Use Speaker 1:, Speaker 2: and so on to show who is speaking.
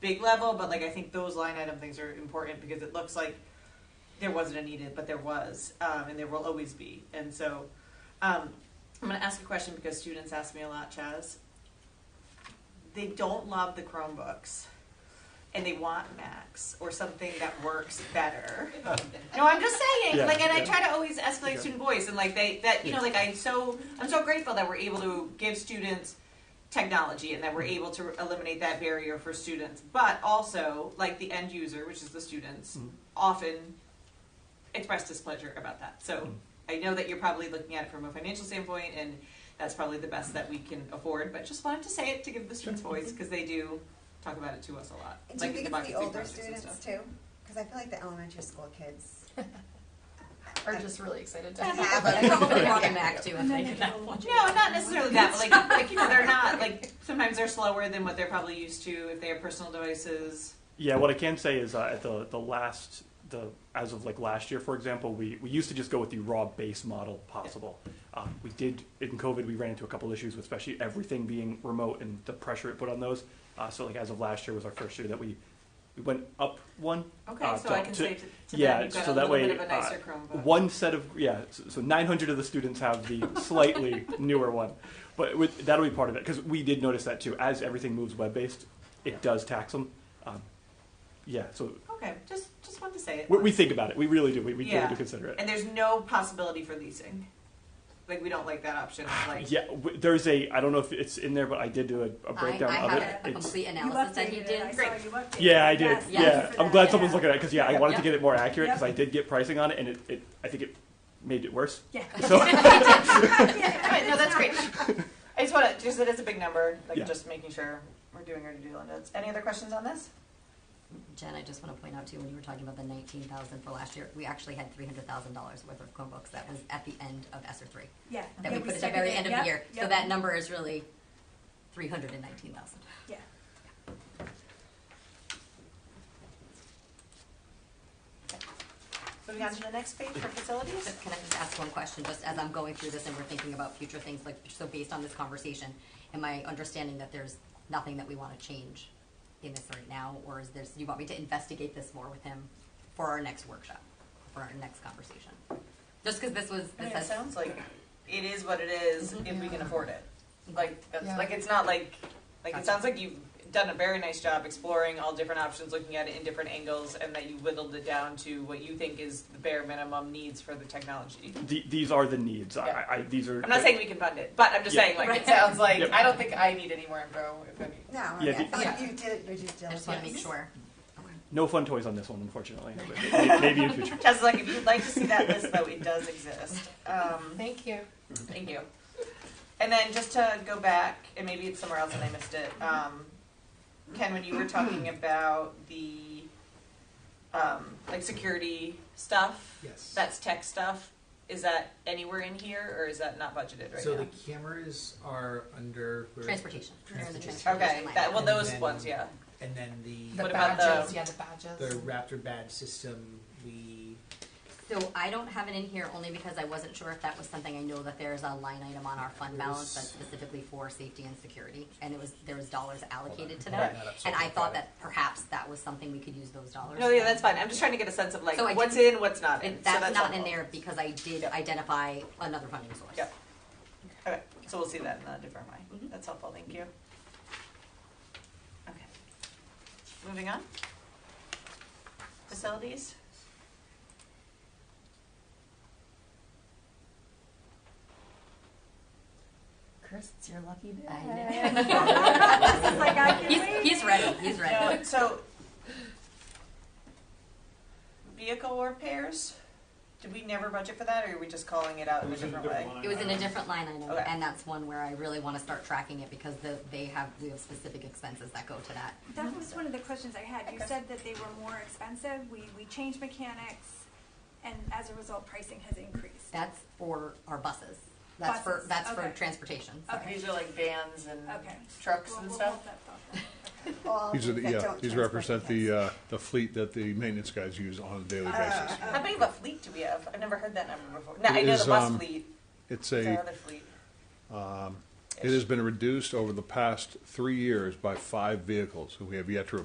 Speaker 1: big level, but like I think those line item things are important because it looks like there wasn't a needed, but there was, um, and there will always be. And so, um, I'm going to ask a question because students ask me a lot, Chaz. They don't love the Chromebooks, and they want Macs or something that works better. no, I'm just saying.
Speaker 2: Yeah,
Speaker 1: like, and I
Speaker 2: yeah.
Speaker 1: try to always escalate
Speaker 2: Yeah.
Speaker 1: student voice, and like they that you know,
Speaker 2: Yeah.
Speaker 1: like I so I'm so grateful that we're able to give students technology and that we're able to eliminate that barrier for students, but also like the end user, which is the students,
Speaker 2: Mhm.
Speaker 1: often express displeasure about that. So
Speaker 2: Mhm.
Speaker 1: I know that you're probably looking at it from a financial standpoint, and that's probably the best that we can afford. But just wanted to say it to give the students voice because they do talk about it to us a lot,
Speaker 3: Do you
Speaker 1: in
Speaker 3: think it's
Speaker 1: democracy
Speaker 3: the older
Speaker 1: projects and
Speaker 3: students
Speaker 1: stuff.
Speaker 3: too? Because I feel like the elementary school kids
Speaker 4: Are just really excited to
Speaker 3: have
Speaker 4: have
Speaker 3: it.
Speaker 4: it. Probably want a Mac too. if they did not want
Speaker 1: No, not necessarily that, but like, like you know, they're not like sometimes they're slower than what they're probably used to if they have personal devices.
Speaker 2: Yeah, what I can say is uh, at the the last the as of like last year, for example, we, we used to just go with the raw base model possible. Uh, we did in COVID, we ran into a couple issues, with especially everything being remote and the pressure it put on those. Uh, so like as of last year was our first year that we we went up one.
Speaker 1: Okay,
Speaker 2: uh,
Speaker 1: so
Speaker 2: to-
Speaker 1: I can
Speaker 2: to-
Speaker 1: say to, to
Speaker 2: yeah,
Speaker 1: them, you've got
Speaker 2: so
Speaker 1: a
Speaker 2: that
Speaker 1: little
Speaker 2: way, uh,
Speaker 1: bit of a nicer Chromebook.
Speaker 2: one set of yeah so, so 900 of the students have the slightly newer one but with, that'll be part of it because we did notice that too as everything moves web-based it does tax them um, yeah so
Speaker 1: okay, just just wanted to say it.
Speaker 2: we, we think about it we really do we, we really
Speaker 1: Yeah.
Speaker 2: do consider it
Speaker 1: And there's no possibility for leasing. Like we don't like that option. of, Like
Speaker 2: yeah w- there's a i don't know if it's in there but i did do a, a breakdown
Speaker 5: I, I
Speaker 2: of it
Speaker 5: have a
Speaker 2: It's-
Speaker 5: complete analysis that he
Speaker 6: updated it.
Speaker 5: did.
Speaker 6: I saw
Speaker 1: Great.
Speaker 6: you updated
Speaker 2: yeah i
Speaker 6: it.
Speaker 2: did
Speaker 6: Yes,
Speaker 2: yeah
Speaker 5: yes.
Speaker 6: thank you for
Speaker 2: i'm
Speaker 6: that.
Speaker 2: glad
Speaker 6: Yeah.
Speaker 2: someone's looking at it because yeah i wanted to
Speaker 5: Yep.
Speaker 2: get it more accurate because
Speaker 6: Yep.
Speaker 2: i did get pricing on it and it, it i think it made it worse
Speaker 6: Yeah.
Speaker 2: so
Speaker 1: All right, no, that's great. I just want to just that it's a big number. Like
Speaker 2: Yeah.
Speaker 1: just making sure we're doing our due diligence. Any other questions on this?
Speaker 5: Jen, I just want to point out too, when you were talking about the nineteen thousand for last year, we actually had three hundred thousand dollars worth of Chromebooks that was at the end of ESSER three.
Speaker 6: Yeah.
Speaker 5: That
Speaker 6: yeah,
Speaker 5: we put at the
Speaker 6: stuck it
Speaker 5: very
Speaker 6: in.
Speaker 5: end of
Speaker 6: Yep,
Speaker 5: the year. So
Speaker 6: yep.
Speaker 5: that number is really three hundred and nineteen thousand.
Speaker 6: Yeah.
Speaker 1: Moving on to the next page for facilities.
Speaker 5: Can I just ask one question, just as I'm going through this and we're thinking about future things, like, so based on this conversation, am I understanding that there's nothing that we want to change in this right now, or is there's, you want me to investigate this more with him for our next workshop, for our next conversation? Just because this was,
Speaker 1: I
Speaker 5: this
Speaker 1: mean, it
Speaker 5: has,
Speaker 1: Oh, sounds like it is what it is if we can afford it. Like that's
Speaker 4: Yeah.
Speaker 1: like it's not like like it
Speaker 5: Mm-hmm. Gotcha.
Speaker 1: sounds like you've done a very nice job exploring all different options, looking at it in different angles, and that you whittled it down to what you think is the bare minimum needs for the technology.
Speaker 2: the, these are the needs I,
Speaker 1: Yeah.
Speaker 2: I, I these are
Speaker 1: I'm not saying we can fund it, but I'm just
Speaker 2: Yeah.
Speaker 1: saying like it
Speaker 5: Right.
Speaker 1: sounds like
Speaker 2: Yep.
Speaker 1: I don't think I need any more info if any.
Speaker 3: No, I
Speaker 2: Yeah,
Speaker 3: mean, I
Speaker 2: the-
Speaker 3: feel like
Speaker 1: Yeah.
Speaker 3: you did it, you just
Speaker 5: I just want to make
Speaker 3: diligence.
Speaker 5: sure.
Speaker 2: No fun toys on this one, unfortunately. May- Maybe in future.
Speaker 1: Just like if you'd like to see that list though, it does exist. Um,
Speaker 4: Thank you.
Speaker 1: thank you. And then just to go back, and maybe it's somewhere else and I missed it. Um, Ken, when you were talking about the um, like security stuff,
Speaker 7: Yes.
Speaker 1: that's tech stuff. Is that anywhere in here, or is that not budgeted right
Speaker 7: so
Speaker 1: now?
Speaker 7: the cameras are under where-
Speaker 5: Transportation. We're in the
Speaker 7: Transportation.
Speaker 5: transportation
Speaker 1: okay,
Speaker 5: line.
Speaker 1: that well,
Speaker 7: And
Speaker 1: those
Speaker 7: then-
Speaker 1: ones, yeah.
Speaker 7: and then
Speaker 4: The
Speaker 7: the
Speaker 1: What about the-
Speaker 4: badges, yeah, the badges.
Speaker 7: the Raptor badge system. We
Speaker 5: So I don't have it in here only because I wasn't sure if that was something, I know that there's a line item on our fund balance that's specifically for safety and security, and it was, there was dollars allocated to that. And I thought that perhaps that was something we could use those dollars.
Speaker 1: No, yeah,
Speaker 5: for.
Speaker 1: that's fine. I'm just trying to get a sense of like
Speaker 5: So I
Speaker 1: what's
Speaker 5: didn't-
Speaker 1: in, what's not in.
Speaker 5: It-
Speaker 1: so
Speaker 5: That's not in
Speaker 1: helpful.
Speaker 5: there because I did
Speaker 1: Yep.
Speaker 5: identify another funding source.
Speaker 1: Yep. Okay, so we'll see that in a different way.
Speaker 6: Mm-hmm.
Speaker 1: That's helpful, thank you. Okay. Moving on. Facilities?
Speaker 6: Chris, it's your lucky day.
Speaker 5: I
Speaker 6: It's like, I can
Speaker 5: He's,
Speaker 6: wait.
Speaker 5: he's ready, he's ready.
Speaker 1: No, So, vehicle repairs, did we never budget for that, or are we just calling it out in a different way?
Speaker 5: It was in a different line item,
Speaker 1: Okay.
Speaker 5: and that's one where I really want to start tracking it because the, they have, we have specific expenses that go to that.
Speaker 6: That was one of the questions I had. You
Speaker 1: Okay.
Speaker 6: said that they were more expensive. We, we changed mechanics, and as a result, pricing has increased.
Speaker 5: That's for our buses. That's for,
Speaker 6: Buses,
Speaker 5: that's for
Speaker 6: okay.
Speaker 5: transportation, sorry.
Speaker 6: Okay.
Speaker 1: These are like vans and
Speaker 6: Okay.
Speaker 1: trucks
Speaker 6: We'll-
Speaker 1: and
Speaker 6: we'll
Speaker 1: stuff?
Speaker 6: hold that thought then.
Speaker 3: All
Speaker 8: These are the,
Speaker 3: things that
Speaker 8: yeah,
Speaker 3: don't
Speaker 8: these
Speaker 3: transport
Speaker 8: represent
Speaker 3: kids.
Speaker 8: the, uh, the fleet that the maintenance guys use on a daily
Speaker 3: Ah,
Speaker 8: basis.
Speaker 1: How big of a fleet do we have? I've never heard that number before. No, I know
Speaker 8: It
Speaker 1: the
Speaker 8: is,
Speaker 1: bus
Speaker 8: um,
Speaker 1: fleet,
Speaker 8: It's
Speaker 1: it's our
Speaker 8: a,
Speaker 1: other fleet.
Speaker 8: it has been reduced over the past three years by five vehicles. We have yet to